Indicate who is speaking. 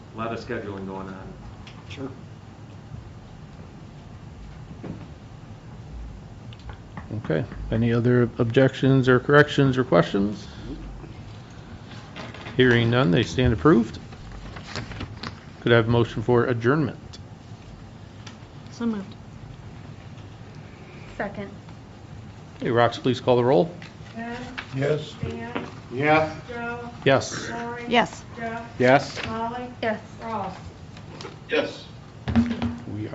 Speaker 1: a lot of scheduling going on.
Speaker 2: Sure.
Speaker 3: Okay. Any other objections or corrections or questions? Hearing none, they stand approved. Could I have a motion for adjournment?
Speaker 4: So moved.
Speaker 5: Second.
Speaker 3: Hey, Rox, please call the roll.
Speaker 6: Ken,
Speaker 2: Yes.
Speaker 6: Dan,
Speaker 2: Yeah.
Speaker 6: Joe,
Speaker 3: Yes.
Speaker 6: Lori.
Speaker 4: Yes.
Speaker 6: Jeff,
Speaker 2: Yes.
Speaker 6: Molly,
Speaker 5: Yes.
Speaker 6: Ross.
Speaker 2: Yes.